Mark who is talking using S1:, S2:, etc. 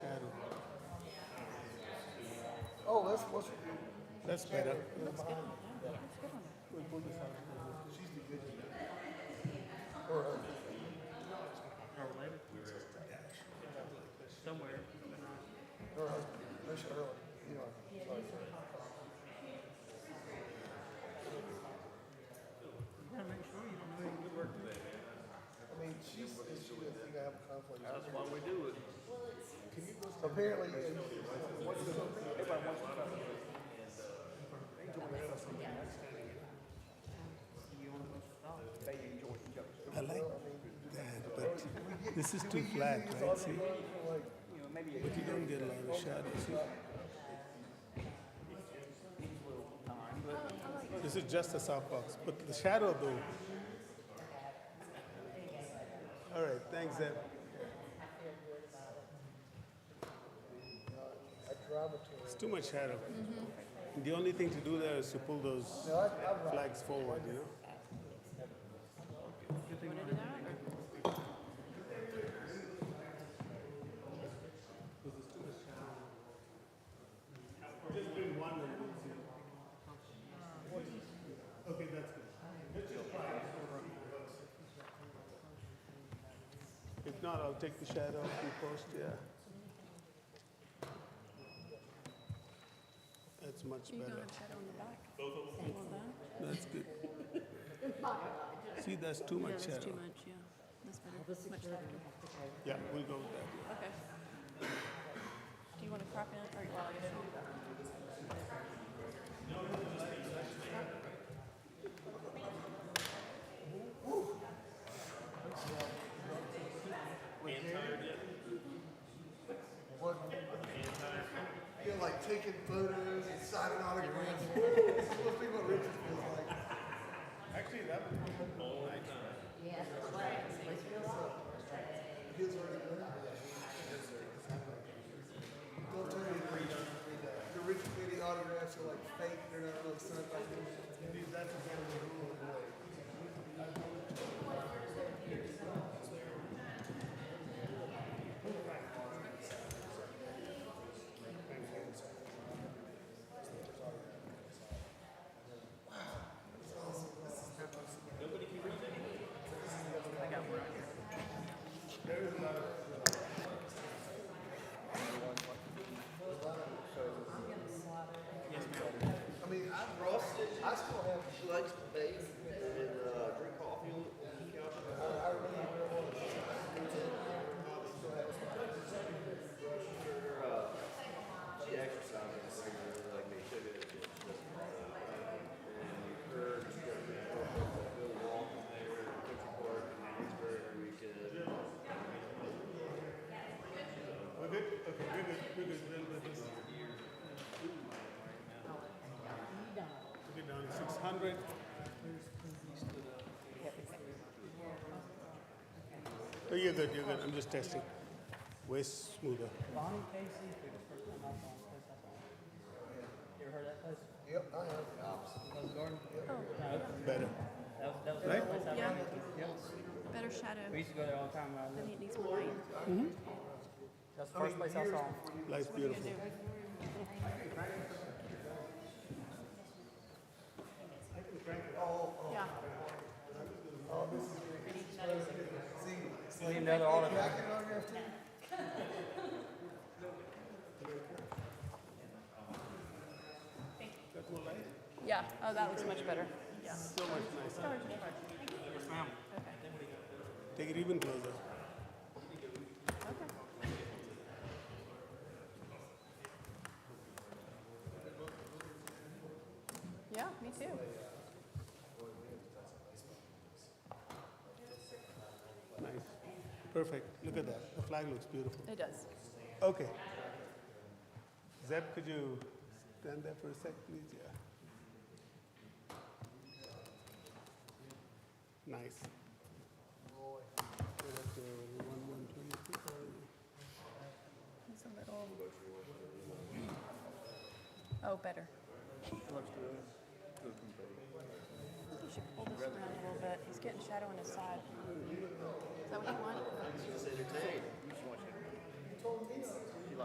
S1: Oh, that's, what's,
S2: That's better.
S3: somewhere.
S1: her husband, that's her, you know.
S3: You gotta
S1: sorry.
S3: make sure you don't do any good work today.
S1: I mean, she's, she would think I have a conflict.
S3: That's why we do it.
S1: Apparently,
S2: I like that, but this is too flat, right? See,
S1: like,
S2: but you don't get a lot of shadows. See? This is just a softbox, but the shadow though. All right, thanks, Zeb.
S1: I drive it to her.
S2: It's too much shadow. The only thing to do there is to pull those
S1: No, I, I ride.
S2: flags forward, you know? If not, I'll take the shadow off the post, yeah. That's much
S4: You don't
S2: better.
S4: have shadow on the back. Both of them.
S2: That's good. See, that's too
S4: Yeah,
S2: much
S4: that's too
S2: shadow.
S4: much, yeah. That's better, much better.
S2: Yeah, we'll go with that.
S4: Okay. Do you want to crop in or you want to?
S1: What? You're like taking photos and signing autographs. Woo, This is supposed to be what Richard feels like.
S2: Actually, that would be
S1: His already done. Don't tell me the Richard, the Richard Petty autographs are like fake, they're not really signed by him. That's a better rule of the way. I mean, I, I still have. She likes to bathe and, uh, drink coffee on the couch. I really, really want to. Still have.
S5: She exercises regularly, like they should have. but she doesn't. Uh, And her, she goes to the Bill Walton there, Central Park, and Hansburg every weekend.
S2: We're good? Okay, we're good, we're good, we'll let this. We'll get down to six hundred. Oh, you're good, you're good, I'm just testing. Way smoother.
S6: Bonnie Casey, who the first time I saw him, first I saw him. You ever heard that place?
S1: Yep, I have.
S6: Rose Garden?
S2: Better.
S6: That was, that was
S2: Right?
S6: the place I
S4: Yeah.
S6: ran into. Yep.
S4: Better shadow,
S6: We used to go there all the time when I
S4: then it
S6: lived.
S4: needs more light.
S6: That's the first place I saw him.
S2: Life's
S4: What are you gonna
S2: beautiful.
S4: do? Yeah,
S6: We need another autograph.
S1: Get an autograph too?
S4: yeah, oh, that looks much better, yeah.
S2: So much nicer.
S6: Yes, ma'am.
S2: Take it even closer.
S4: Yeah, me too.
S2: Nice. Perfect, look at that, the flag looks beautiful.
S4: It does.
S2: Okay. Zeb, could you stand there for a sec, please? Yeah. Nice. We're up to 1123, or-
S4: It's a little. Oh, better. I think you should pull this around a little bit. He's getting shadow on his side. Is that what you want?
S5: She's entertained. You just want you to.